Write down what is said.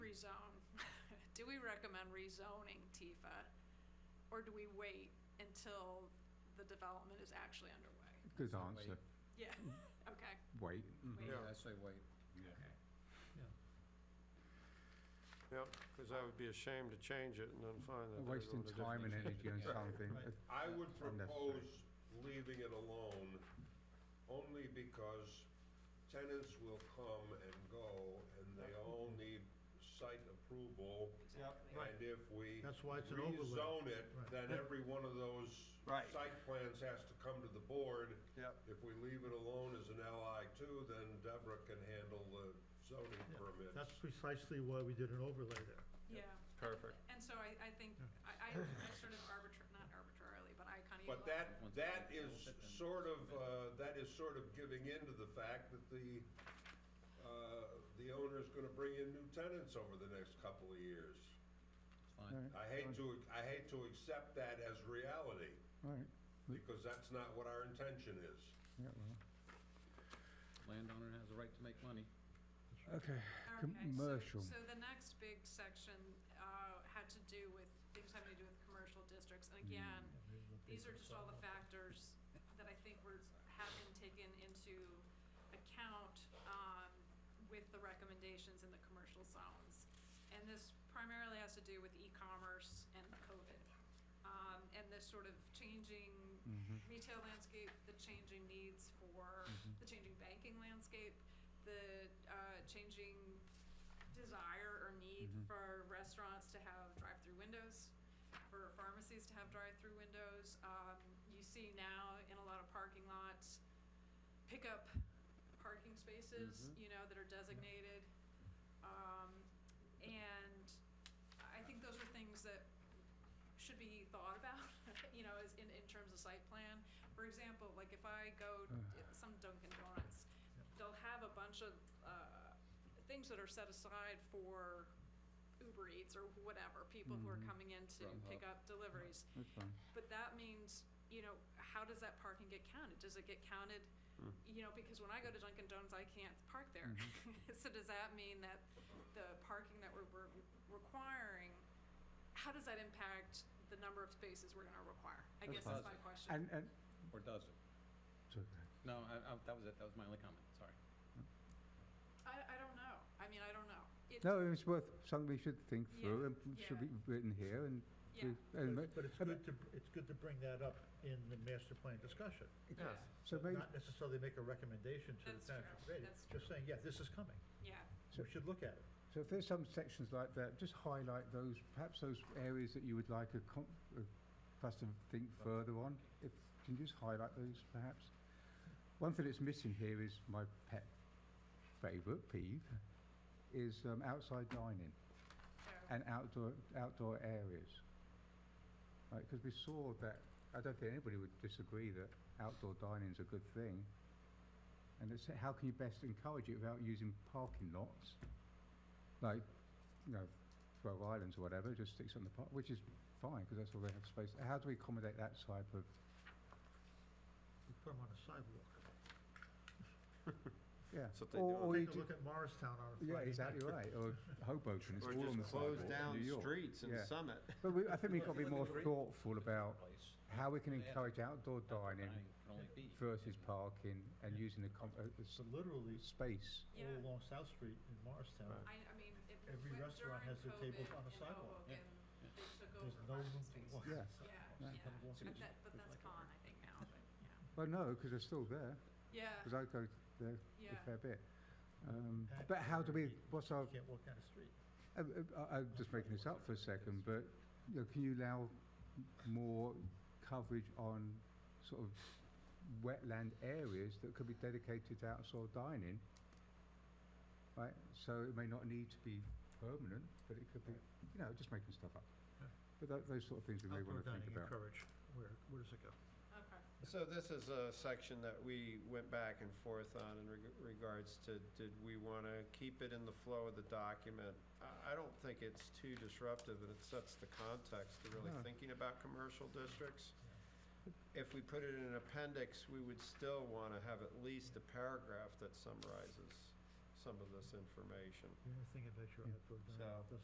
do we recommend rezoning Tifa? Or do we wait until the development is actually underway? Good So answer, Yeah, okay. wait. Mhm. Yeah. Yeah, I say wait. Yep, because that would be a shame to change it and then find that. We're they're Wasting going to time and different- energy on something. Right. I would Unnecessary. propose leaving it alone, only because tenants will come and go, and they all need site approval. Exactly. And if we That's why it's an overlay. rezone it, Right. then every one of those Right. site plans has to come to the board. Yep. If we leave it alone as an LI two, then Deborah can handle the zoning Yeah, permits. That's precisely why we did an overlay there. Yeah, Perfect. and so I, I think, I, I I sort of arbitrar, not arbitrarily, but I kind of. But that, that is sort of, uh, that is sort of giving in to the fact that the, uh, the owner's gonna bring in new tenants over the next couple of years. All right, I hate to, I hate to accept that as reality, all right, because that's not what our intention is. yeah, well. Landowner has a right to make money. Okay, Okay, so- commercial. So the next big section uh, had to do with, things having to do with commercial districts. And again, these are just all the factors that I think were, have been taken into account um, with the recommendations in the commercial zones. And this primarily has to do with e-commerce and COVID. Um, And this sort of changing Mhm. retail landscape, the changing needs for, the changing banking landscape, the uh, changing desire or need Mhm. for restaurants to have drive-through windows, for pharmacies to have drive-through windows. Um, you see now in a lot of parking lots, pickup parking spaces, you know, that are designated. Um, and I think those are things that should be thought about, you know, as in, in terms of site plan. For example, like if I go Uh. to some Dunkin' Donuts, they'll have a bunch of, uh, things that are set aside for Uber Eats or whatever, people who are Mhm. coming in to pick up deliveries. that's fine. But that means, you know, how does that parking get counted? Does it get counted, you know, because when I go to Dunkin' Donuts, I can't park there. Mm-hmm. So does that mean that the parking that we're, we're requiring, how does that impact the number of spaces we're gonna require? I That's guess that's fine. my question. And, and, Or does it? it's okay. No, I, I, that was it, that was my only comment, sorry. I, I don't know. I mean, I don't know. It- no, it's worth, something we should think Yeah, through and p- should yeah. be written here and. Yeah. we- and ma- But it's and- good to, it's good to bring that up in the master plan discussion. Yeah, So maybe, Not necessarily make a recommendation to That's the township true, committee. that's Just saying, yeah, this is coming. yeah. So- We should look at it. so if there's some sections like that, just highlight those, perhaps those areas that you would like a com, uh, us to think further on. If, can you just highlight those perhaps? One thing that's missing here is my pet favourite peeve, is, um, outside dining. So, and outdoor outdoor areas. Right, because we saw that. I don't think anybody would disagree that outdoor dining's a good thing. And it's how can you best encourage it without using parking lots, like you know, Rhode Islands or whatever, just sticks on the park, which is fine because that's all they have space. How do we accommodate that type of? We put them on a sidewalk. Yeah. That's what they or, do. or you Take a do, look at Morristown on a Friday yeah, night. exactly right. Or Hoboken, it's Or all on the just close sidewalk, down New York. streets in Yeah. Summit. But we, I think we've got to be more thoughtful about Place. how we can Yeah. encourage outdoor Outdoor dining can only be- versus parking and using the com- uh, uh, So s- literally, space. Yeah. all along South Street in Morristown, I, I mean, it, Every when- restaurant during has their tables COVID on a in sidewalk. Hoboken, they took there's over no room parking to spaces. walk. Yeah. Yeah, Yeah. yeah. Sidewalks. But that, but that's gone, I think now, but, yeah. Well, no, because they're still there, because Yeah, I go there yeah. a fair bit. Um, Packed but how do we, already. what's our, You can't walk down the street. uh, uh, I- I'm just making this up for a second, but, you know, can you allow m- more coverage on sort of wetland areas that could be dedicated to outdoor dining? Right, so it may not need to be permanent, but it could be, you know, just making stuff up. Yeah. But tho- those sort of things we may Outdoor want to think dining about. encouraged. Where, where does it go? Okay. So this is a section that we went back and forth on in reg- regards to, did we want to keep it in the flow of the document? I, I don't think it's too disruptive and it sets the context to really No. thinking about commercial districts. If we put it in an appendix, we would still want to have at least a paragraph that summarizes some of this information. The only thing about your Yeah. outdoor So- dining, it doesn't